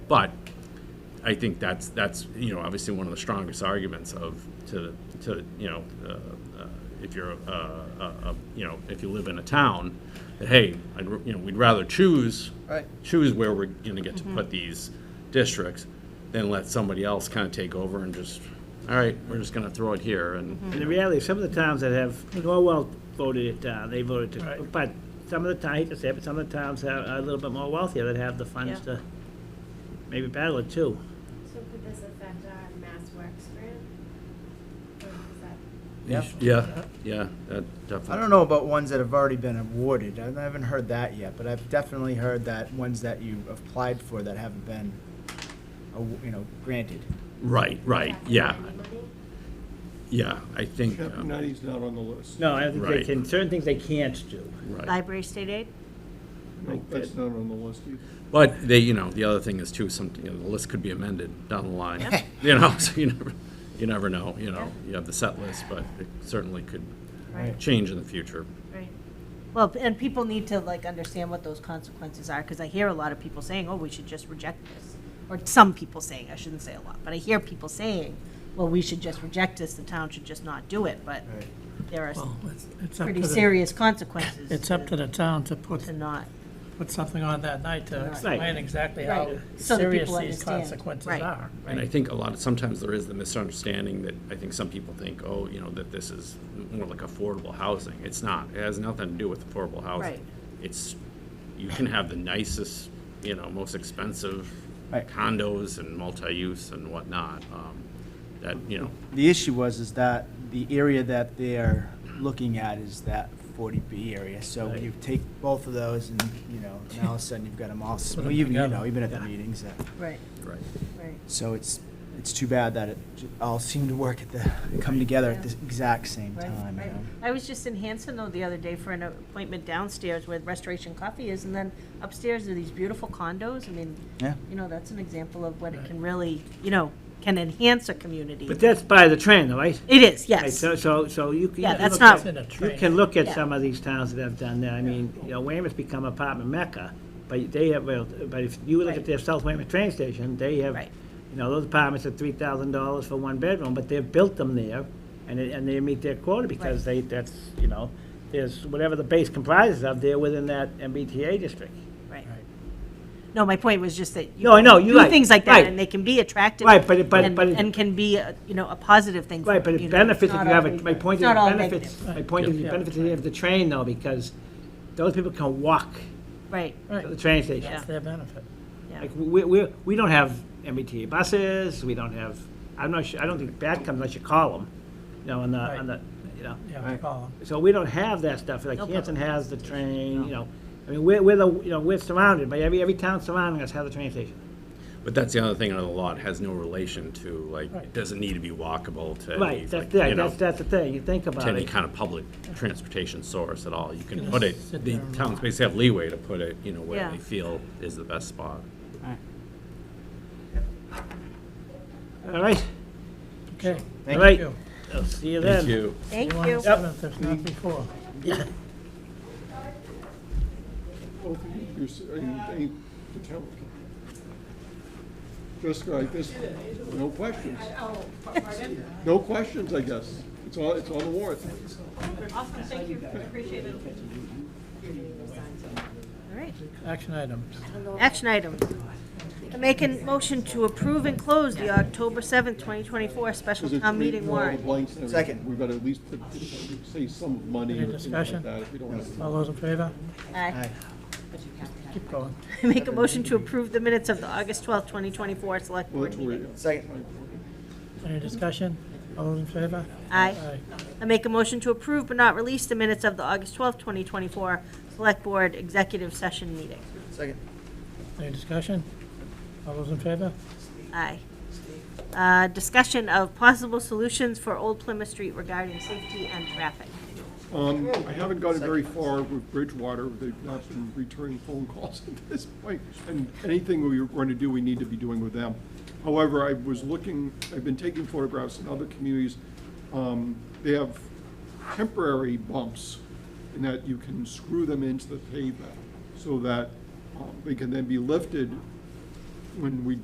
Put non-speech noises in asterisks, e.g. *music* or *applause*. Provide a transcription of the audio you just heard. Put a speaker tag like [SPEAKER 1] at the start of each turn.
[SPEAKER 1] But I think that's, that's, you know, obviously one of the strongest arguments of, to, to, you know, uh, uh, if you're, uh, uh, uh, you know, if you live in a town, that, hey, I'd, r- you know, we'd rather choose,
[SPEAKER 2] Right. Mm-hmm.
[SPEAKER 1] choose where we're gonna get to put these districts than let somebody else kind of take over and just, all right, we're just gonna throw it here and,
[SPEAKER 2] Mm-hmm.
[SPEAKER 3] And the reality, is, some of the towns that have, Norwell voted it down, they voted to, but some of the, town- I hate to say it, but some of the towns that are a little bit more wealthier that have the funds
[SPEAKER 4] Yeah.
[SPEAKER 3] to maybe battle it too.
[SPEAKER 5] So could this affect our Mass Works grant? Or is that,
[SPEAKER 2] Yep.
[SPEAKER 1] yeah, yeah, that definitely.
[SPEAKER 2] I don't know about ones that have already been awarded. I haven't heard that yet, but I've definitely heard that ones that you applied for that haven't been, aw- you know, granted.
[SPEAKER 1] Right, right,
[SPEAKER 5] is that
[SPEAKER 1] yeah,
[SPEAKER 5] any money?
[SPEAKER 1] yeah, I think,
[SPEAKER 6] Chapter
[SPEAKER 1] um,
[SPEAKER 6] ninety's not on the list.
[SPEAKER 3] No, I don't think they
[SPEAKER 1] Right.
[SPEAKER 3] can, certain things they can't do.
[SPEAKER 1] right.
[SPEAKER 4] Library state aid?
[SPEAKER 6] No, That's not on the list either.
[SPEAKER 1] But they, you know, the other thing is too, some, you know, the list could be amended down the line. *laughs* You know, so you never, you never know, you know, you have the set list, but it certainly could
[SPEAKER 4] Right.
[SPEAKER 1] change in the future.
[SPEAKER 4] Right. Well, and people need to like understand what those consequences are, because I hear a lot of people saying, oh, we should just reject this. Or some people saying, I shouldn't say a lot, but I hear people saying, well, we should just reject this, the town should just not do it, but there are
[SPEAKER 7] Well, it's- it's up
[SPEAKER 4] pretty
[SPEAKER 7] to the,
[SPEAKER 4] serious consequences.
[SPEAKER 7] it's up to the town to put,
[SPEAKER 4] To not.
[SPEAKER 7] put something on that night to
[SPEAKER 3] Right.
[SPEAKER 7] explain exactly how
[SPEAKER 4] Right. So that
[SPEAKER 7] serious
[SPEAKER 4] people
[SPEAKER 7] these
[SPEAKER 4] understand.
[SPEAKER 7] consequences
[SPEAKER 4] Right.
[SPEAKER 7] are.
[SPEAKER 1] And I think a lot of, sometimes there is the misunderstanding that I think some people think, oh, you know, that this is more like affordable housing. It's not. It has nothing to do with affordable housing.
[SPEAKER 4] Right.
[SPEAKER 1] It's, you can have the nicest, you know, most expensive
[SPEAKER 2] Right.
[SPEAKER 1] condos and multi-use and whatnot, um, that, you know,
[SPEAKER 2] The issue was is that the area that they're looking at is that 40B area. So you take both of those and, you know, now all of a sudden you've got them all, s-
[SPEAKER 7] Put 'em
[SPEAKER 2] well, even, you
[SPEAKER 7] together.
[SPEAKER 2] know, even at the meetings. that-
[SPEAKER 4] Right,
[SPEAKER 1] right.
[SPEAKER 4] right.
[SPEAKER 2] So it's, it's too bad that it j- all seemed to work at the, come together at the exact same
[SPEAKER 4] Right,
[SPEAKER 2] time. you
[SPEAKER 4] right.
[SPEAKER 2] know.
[SPEAKER 4] I was just in Hanson though the other day for an appointment downstairs where Restoration Coffee is, and then upstairs are these beautiful condos. I mean,
[SPEAKER 2] Yeah.
[SPEAKER 4] you know, that's an example of what it can really, you know, can enhance a community.
[SPEAKER 3] But that's by the trend, though, right?
[SPEAKER 4] It is,
[SPEAKER 3] Right,
[SPEAKER 4] yes.
[SPEAKER 3] So, so, so you can.
[SPEAKER 4] Yeah, that's
[SPEAKER 3] look at-
[SPEAKER 4] not-
[SPEAKER 7] It's in a
[SPEAKER 3] You
[SPEAKER 7] train.
[SPEAKER 3] can look at
[SPEAKER 4] Yeah.
[SPEAKER 3] some of these towns that have done that. I mean, you know, Weymouth's become apartment mecca, but they have, well, but if you look at
[SPEAKER 4] Right.
[SPEAKER 3] their South Weymouth train station, they have,
[SPEAKER 4] Right.
[SPEAKER 3] you know, those apartments are three thousand dollars for one bedroom, but they've built them there, and, it- and they meet their quota because they, that's, you know, there's whatever the base comprises of, they're within that MBTA district.
[SPEAKER 4] Right. No, my point was just that. you
[SPEAKER 3] No, I know,
[SPEAKER 4] can
[SPEAKER 3] you're right,
[SPEAKER 4] Do things like
[SPEAKER 3] right.
[SPEAKER 4] that, and they can be attractive.
[SPEAKER 3] Right, but it- but-
[SPEAKER 4] and-
[SPEAKER 3] but it-
[SPEAKER 4] And can be, a, you know, a positive thing. for
[SPEAKER 3] Right, but
[SPEAKER 4] the
[SPEAKER 3] it
[SPEAKER 4] community.
[SPEAKER 3] benefits if
[SPEAKER 4] It's
[SPEAKER 3] you
[SPEAKER 4] not
[SPEAKER 3] have,
[SPEAKER 4] all-
[SPEAKER 3] a. my point
[SPEAKER 4] it's
[SPEAKER 3] is,
[SPEAKER 4] not
[SPEAKER 3] it
[SPEAKER 4] all
[SPEAKER 3] benefits,
[SPEAKER 4] negative.
[SPEAKER 3] my point is, it
[SPEAKER 7] Yeah.
[SPEAKER 3] benefits if you have the train though, because those people can walk
[SPEAKER 4] Right,
[SPEAKER 3] to the train station.
[SPEAKER 7] That's their benefit.
[SPEAKER 4] yeah.
[SPEAKER 3] Like, we, we, we don't have MBTA buses, we don't have, I'm not sure, I don't think that comes unless you call them, you know, on the, on the, you know.
[SPEAKER 7] Yeah, we call 'em.
[SPEAKER 3] So we don't have that stuff, like
[SPEAKER 4] No
[SPEAKER 3] Hanson has the train, you know, I mean, we're, we're the, you know, we're surrounded by, every, every town surrounding us has a train station.
[SPEAKER 1] But that's the other thing under the law, it has no relation to, like, it
[SPEAKER 7] Right.
[SPEAKER 1] doesn't need to be walkable to any,
[SPEAKER 3] Right, that's,
[SPEAKER 1] like,
[SPEAKER 3] the-
[SPEAKER 1] you know,
[SPEAKER 3] that's,
[SPEAKER 1] to
[SPEAKER 3] that's the thing, you think about
[SPEAKER 1] any
[SPEAKER 3] it.
[SPEAKER 1] kind of public transportation source at all. You can put it,
[SPEAKER 7] sit
[SPEAKER 1] the
[SPEAKER 7] there and
[SPEAKER 1] towns basically have leeway to put it, you know, where
[SPEAKER 4] Yeah.
[SPEAKER 1] they feel is the best spot.
[SPEAKER 3] All right,
[SPEAKER 7] Okay.
[SPEAKER 3] all
[SPEAKER 2] Thank
[SPEAKER 3] right,
[SPEAKER 7] you.
[SPEAKER 3] I'll see you then.
[SPEAKER 1] Thank you.
[SPEAKER 4] Thank
[SPEAKER 7] You
[SPEAKER 4] you.
[SPEAKER 7] want seventh, if not before.
[SPEAKER 6] Both of you, you're, s- are you, ain't the town. Just like this, no questions. No questions, I guess. It's all, it's on the warrant.
[SPEAKER 4] All right.
[SPEAKER 7] Action items.
[SPEAKER 4] Action items. I Make a motion to approve and close the October 7th, 2024 special
[SPEAKER 6] Because if
[SPEAKER 4] town
[SPEAKER 6] we
[SPEAKER 4] meeting
[SPEAKER 6] draw the
[SPEAKER 4] warrant.
[SPEAKER 6] blanks and everything,
[SPEAKER 2] Second.
[SPEAKER 6] We've got to at least put, say some of money
[SPEAKER 7] Any
[SPEAKER 6] or things like
[SPEAKER 7] discussion?
[SPEAKER 6] that. if we don't have to-
[SPEAKER 7] All those in favor?
[SPEAKER 4] Aye.
[SPEAKER 7] Keep going.
[SPEAKER 4] I *laughs* Make a motion to approve the minutes of the August 12th, 2024 select
[SPEAKER 6] Well,
[SPEAKER 4] board
[SPEAKER 6] that's what
[SPEAKER 4] meeting.
[SPEAKER 6] we-
[SPEAKER 2] Second.
[SPEAKER 7] Any discussion? All those in favor?
[SPEAKER 4] Aye.
[SPEAKER 7] Aye.
[SPEAKER 4] I make a motion to approve but not release the minutes of the August 12th, 2024 select board executive session meeting.
[SPEAKER 2] Second.
[SPEAKER 7] Any discussion? All those in favor?
[SPEAKER 4] Aye. Uh, Discussion of possible solutions for Old Plymouth Street regarding safety and traffic.
[SPEAKER 6] Um, I haven't gotten very far with Bridgewater. They've not been returning phone calls *laughs* at this point. And anything we were going to do, we need to be doing with them. However, I was looking, I've been taking photographs in other communities. Um, They have temporary bumps in that you can screw them into the pavement so that um, they can then be lifted when we